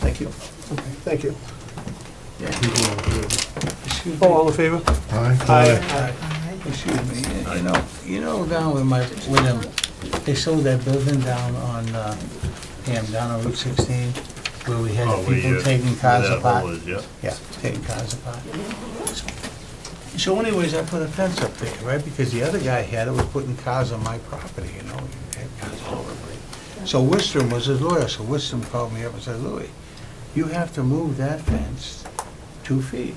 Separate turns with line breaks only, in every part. Thank you. Okay, thank you.
Excuse
Oh,
me,
all in favor?
excuse me, you know, you know down with my, with them, they sold that building down on, uh, Ham, down on Route sixteen, where we had
Oh, we,
people
uh,
taking cars
that
apart.
hole is, yeah.
Yeah, taking cars apart. So anyways, I put a fence up there, right, because the other guy had it, was putting cars on my property, you know, he had cars all over the place. So Wistrom was his lawyer, so Wistrom called me up and said, Louis, you have to move that fence two feet.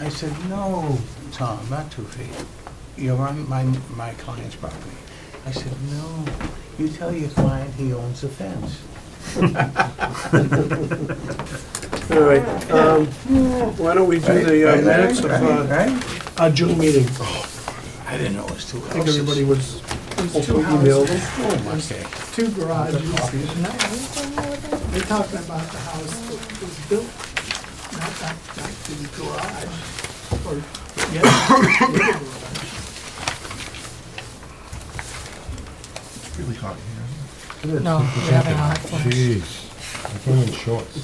I said, no, Tom, not two feet. You're on my, my client's property. I said, no, you tell your client he owns the fence.
All right, um, why don't we do the uh,
Right,
minutes of
right,
uh,
Right?
our June meeting?
I didn't know it was two
I think
houses.
everybody was
There's two
hopefully emailed.
houses,
Oh, my God.
two garages. They're talking about the house that was built, not back, back to the garage, or, yeah, back to the garage.
Really hot here.
No, we're having a hot flash.
Jeez, I'm going in shorts.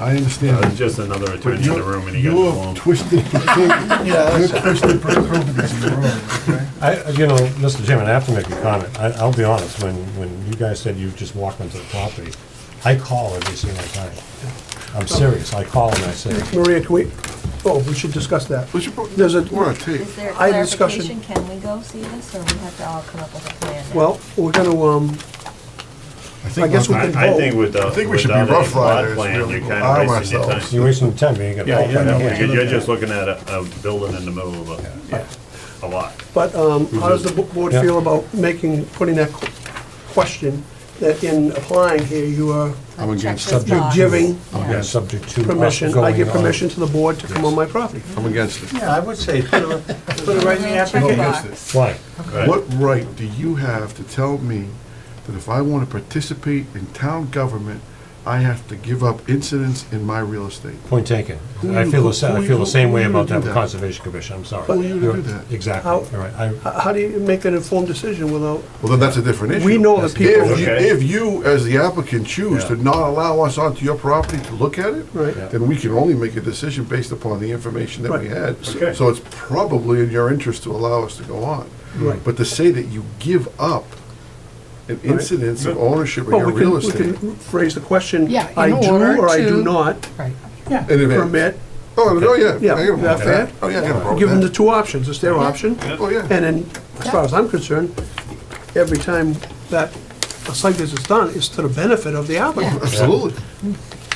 I
Uh, It's
understand.
just another
but
attorney in the
you're-
room and he got blown.
You're twisted, you're twisted proclivities in the room, okay?
I, you know, Mr. Chairman, I have to make a comment. I, I'll be honest, when, when you guys said you just walked onto the property, I call every single time. I'm serious, I call and I say,
Maria, can we, oh, we should discuss that.
But you, put-
There's a,
we're on tape.
Is there
I had a discussion-
clarification, can we go see this, or we have to all come up with a plan? now?
well, we're gonna, um,
think
I guess we
I'll-
I,
can-
I think with the,
I think we should be
without a
rough
plot
riders,
plan,
really.
you're kind
Arm
of wasting your
ourselves.
time.
you're wasting time, you ain't got.
Yeah, yeah, no,
no, yeah.
because you're just looking at a, a building in the middle of a, a lot.
but, um, how does the bo- board
Yeah.
feel about making, putting that qu- question, that in applying here, you are
I'm against,
Check this
You're
box.
giving
Yeah.
Yeah, subject to. us
permission, I
going
give
on.
permission to the board to come on my property.
I'm against it.
Yeah, I would say, put it put it right in the
Check
application.
box.
Why?
Right.
What right do you have to tell me that if I want to participate in town government, I have to give up incidents in my real estate?
Point taken.
Who
I
you-
feel
who
the, sa- I
you-
feel the same
who
way
you
about
do
that
that?
Conservation Commission, I'm sorry.
Who you do
You're-
that?
Exactly,
How-
all right. I,
How how do you make an informed decision without,
Well, then that's a different issue.
we know that
That's
people,
If you,
Okay.
if you, as the applicant, choose to
Yeah.
not allow us onto your property to look at it,
Right.
Yeah.
then we can only make a decision based upon the information that we had.
Okay.
So it's probably in your interest to allow us to go on.
Right.
But to say that you give up an incidence of ownership of
well,
your
we can,
real
we
estate.
can phrase the question,
Yeah, in
I do
order
or I do
to-
not
Right.
Yeah.
In advance.
permit,
Oh, no, yeah.
Yeah,
I got a problem
that
with
fair?
that. Oh, yeah, I got a problem
give them the
with
two options, it's their option.
that. Oh, yeah.
And then, as far as I'm concerned, every time that a site visit is done, it's to the benefit of the applicant.
Absolutely.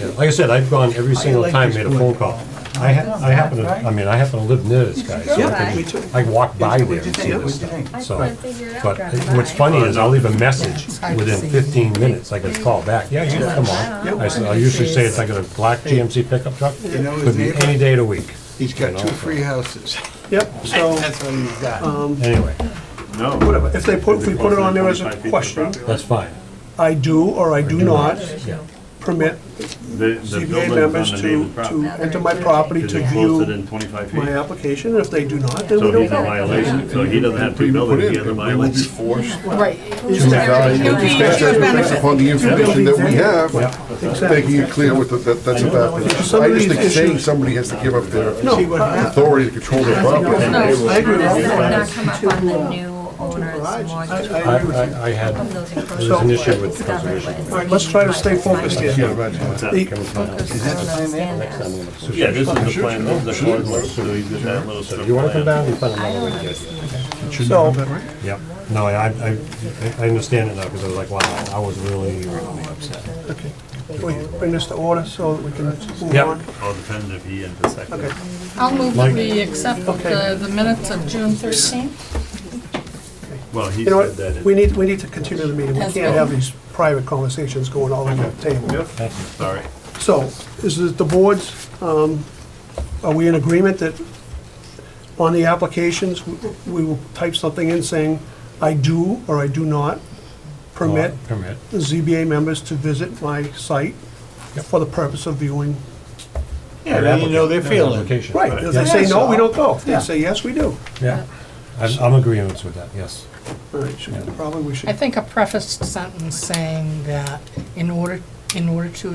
Yeah, Like I said, I've gone every single
like
time,
this
made a
one.
phone call. I ha- I happen to, I mean, I happen to live near this guy. so I
Yeah,
can-
me too.
I walk by there
What'd you
and see
think?
this
What'd you
stuff.
think?
I
So,
couldn't figure it out.
But
driving
it- what's
by.
funny is I'll leave a message
It's hard to
within
see.
15 minutes, I get a call back, yeah, you can come on. I s- I usually say it's like a black GMC pickup truck,
You know, his
could be
neighbor-
any day of the week,
He's got
two
free houses.
Yep, so,
That's what he's got.
um,
anyway,
No.
whatever, if they put, if we put it on there as a question,
that's fine.
I do or I do not
Yeah.
permit
The, the
CBA
building's
members
on the
to,
neighbor's
to
property.
enter my property
Is
to
it closer
view
than twenty-five feet?
my application, and if they do not, then we
So
don't
he's a
go.
violation, so he doesn't have two buildings, he has a
We will be
violation.
forced to
Right.
evaluate the assessment based upon the information that we have.
Exactly.
Making it clear with the, that, that's a bad thing. I just think saying somebody has to give up their
No, I-
authority to control their property.
No,
I agree
Oh, does
with
that
you.
not come up on the new owner, it's more
I-
just
I-
I, I I
from
had,
those encroachments.
There's an issue with
It's not
conservation.
right, it's
All right, let's try to stay focused
I
here.
can't imagine that.
The-
Focus on those standards.
Yeah, this is the plan, this is the course, so he's got that little strip
you wanna come
of land.
down, you find
I
another
don't
way to get.
understand.
So,
Yep, no, I, I, I- I understand it now, because I was like, wow, I was really, really upset.
we bring this to order so that we can move
Yep.
on.
All depends if he intersected.
Okay.
I'll move
Mike.
that we accept the the minutes of June 13th.
Well, he
You know
said that.
what, we need, we need to continue the meeting, we
That's
can't
good.
have these private conversations going all over the table.
Yep, sorry.
So, is it the board's, um, are we in agreement that on the applications, w- we will type something in saying, I do or I do not permit
Permit.
the ZBA members to visit my site for the purpose of viewing?
Yeah, then you know their feeling.
Application.
Right, if they
Yeah.
say no, we don't go, if they
Yeah.
say yes, we do.
Yeah, I'm, I'm agreeing with that, yes.
All right, should- probably we should.
I think a prefaced sentence saying that in order, in order to